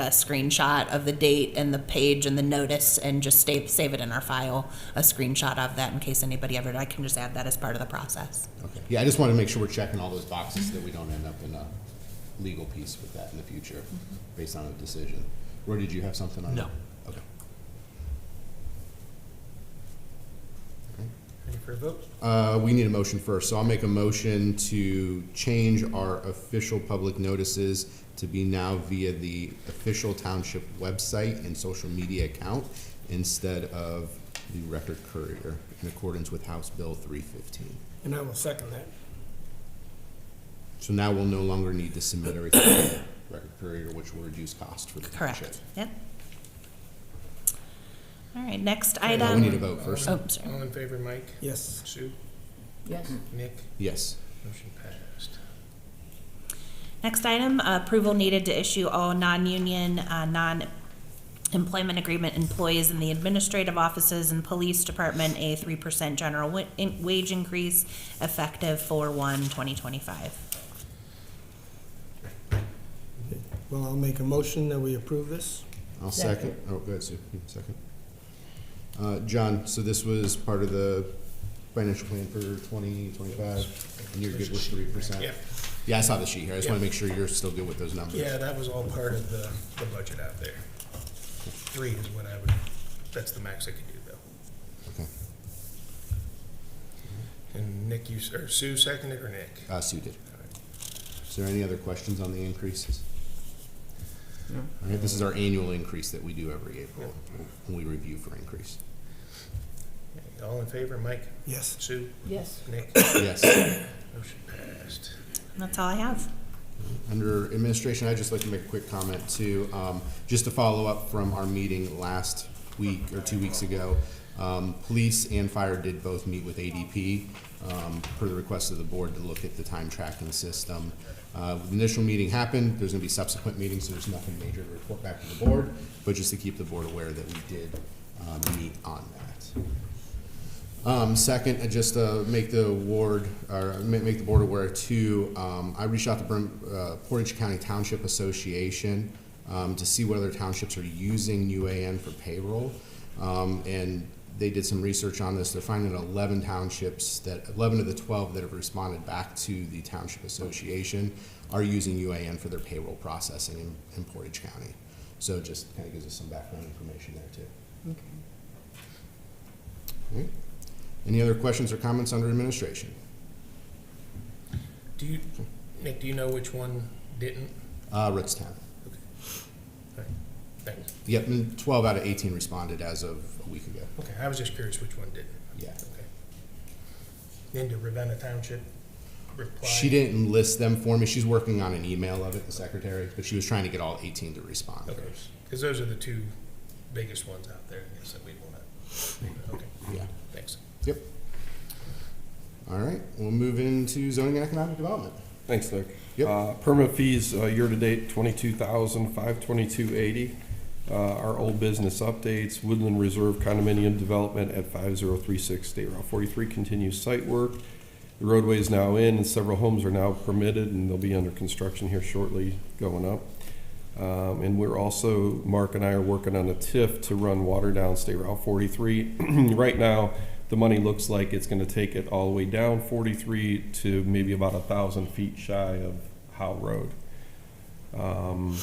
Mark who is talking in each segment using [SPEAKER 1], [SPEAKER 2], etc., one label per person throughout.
[SPEAKER 1] a screenshot of the date and the page and the notice and just save, save it in our file, a screenshot of that in case anybody ever, I can just add that as part of the process.
[SPEAKER 2] Okay, yeah, I just wanted to make sure we're checking all those boxes so that we don't end up in a legal piece with that in the future, based on a decision. Roy, did you have something on that?
[SPEAKER 3] No.
[SPEAKER 2] Okay.
[SPEAKER 4] Ready for a vote?
[SPEAKER 2] Uh, we need a motion first, so I'll make a motion to change our official public notices to be now via the official township website and social media account instead of the record courier, in accordance with House Bill three fifteen.
[SPEAKER 4] And I will second that.
[SPEAKER 2] So now we'll no longer need to submit everything to the record courier, which will reduce cost for the township.
[SPEAKER 1] Correct, yep. All right, next
[SPEAKER 2] Uh, We need a
[SPEAKER 1] item,
[SPEAKER 2] vote first.
[SPEAKER 1] oh, sorry.
[SPEAKER 5] All in favor, Mike?
[SPEAKER 4] Yes.
[SPEAKER 5] Sue?
[SPEAKER 6] Yes.
[SPEAKER 5] Nick?
[SPEAKER 2] Yes.
[SPEAKER 5] Motion passed.
[SPEAKER 1] Next item, uh, approval needed to issue all non-union, uh, non-employment agreement employees in the administrative offices and police department a three percent general wa- in- wage increase effective for one 2025.
[SPEAKER 4] Well, I'll make a motion that we approve this.
[SPEAKER 2] I'll second. Oh, go ahead, Sue. You can Second. Uh, John, so this was part of the financial plan for twenty twenty-five, and you're good with three percent?
[SPEAKER 5] Yeah.
[SPEAKER 2] Yeah, I saw the sheet here. I just want
[SPEAKER 5] Yeah.
[SPEAKER 2] to make sure you're still good with those numbers.
[SPEAKER 5] Yeah, that was all part of the, the budget out there. Three is what I would, that's the max I could do though.
[SPEAKER 2] Okay.
[SPEAKER 5] And Nick, you, s- or Sue seconded or Nick?
[SPEAKER 2] Uh, Sue did. Is there any other questions on the increases? All right, this is our annual increase that we do every April, when we review for increase.
[SPEAKER 5] All in favor, Mike?
[SPEAKER 4] Yes.
[SPEAKER 5] Sue?
[SPEAKER 6] Yes.
[SPEAKER 5] Nick?
[SPEAKER 2] Yes.
[SPEAKER 5] Motion passed.
[SPEAKER 1] That's all I have.
[SPEAKER 2] Under administration, I'd just like to make a quick comment too, um, just to follow up from our meeting last week or two weeks ago. Um, police and fire did both meet with ADP, um, per the request of the board to look at the time tracking system. Uh, the initial meeting happened, there's gonna be subsequent meetings, so there's nothing major to report back to the board, but just to keep the board aware that we did, um, meet on that. Um, second, uh, just uh, make the ward, or ma- make the board aware too, um, I reached out to Brim, uh, Portage County Township Association um, to see what other townships are using UAN for payroll. Um, and they did some research on this. They're finding that eleven townships that, eleven of the twelve that have responded back to the Township Association are using UAN for their payroll processing in, in Portage County. So it just kind of gives us some background information there too. All right. Any other questions or comments under administration?
[SPEAKER 5] Do you, Nick, do you know which one didn't?
[SPEAKER 2] Uh, Ritztown.
[SPEAKER 5] Thanks.
[SPEAKER 2] Yep, and twelve out of eighteen responded as of a week ago.
[SPEAKER 5] Okay, I was just curious which one didn't.
[SPEAKER 2] Yeah.
[SPEAKER 5] Okay. Then did Ravenna Township reply?
[SPEAKER 2] She didn't list them for me. She's working on an email of it, the secretary, but she was trying to get all eighteen to respond.
[SPEAKER 5] Okay, because those are the two biggest ones out there, I guess, that we want to, okay,
[SPEAKER 2] Yeah,
[SPEAKER 5] thanks.
[SPEAKER 2] yep. All right, we'll move into zoning and economic development.
[SPEAKER 7] Thanks, Nick.
[SPEAKER 2] Yep.
[SPEAKER 7] Uh, Permit fees, uh, year-to-date, twenty-two thousand, five twenty-two eighty. Uh, Our old business updates, Woodland Reserve condominium development at five zero three six State Route forty-three continues site work. The roadway is now in, and several homes are now permitted, and they'll be under construction here shortly going up. Um, And we're also, Mark and I are working on a TIF to run water down State Route 43. Right now, the money looks like it's going to take it all the way down 43 to maybe about a 1,000 feet shy of Howe Road. Um,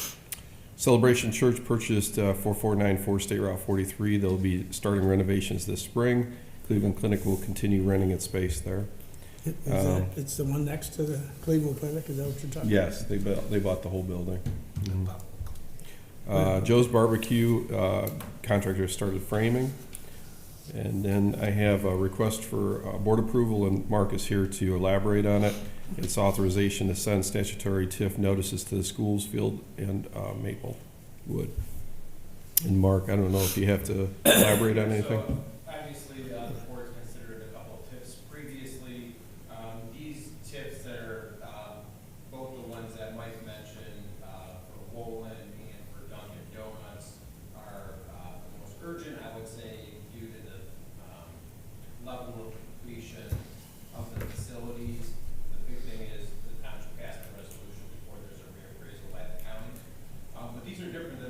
[SPEAKER 7] Celebration Church purchased uh, 4494 State Route 43. They'll be starting renovations this spring. Cleveland Clinic will continue renting its space there.
[SPEAKER 4] Is that, it's the one next to the Cleveland Clinic, is that what you're talking about?
[SPEAKER 7] Yes, they built, they bought the whole building.
[SPEAKER 2] Mm-hmm.
[SPEAKER 7] Uh, Joe's Barbecue, uh, contractor started framing. And then I have a request for, uh, board approval, and Mark is here to elaborate on it. It's authorization to send statutory TIF notices to the schools, field, and, uh, Maplewood. And Mark, I don't know if you have to elaborate on anything?
[SPEAKER 8] So,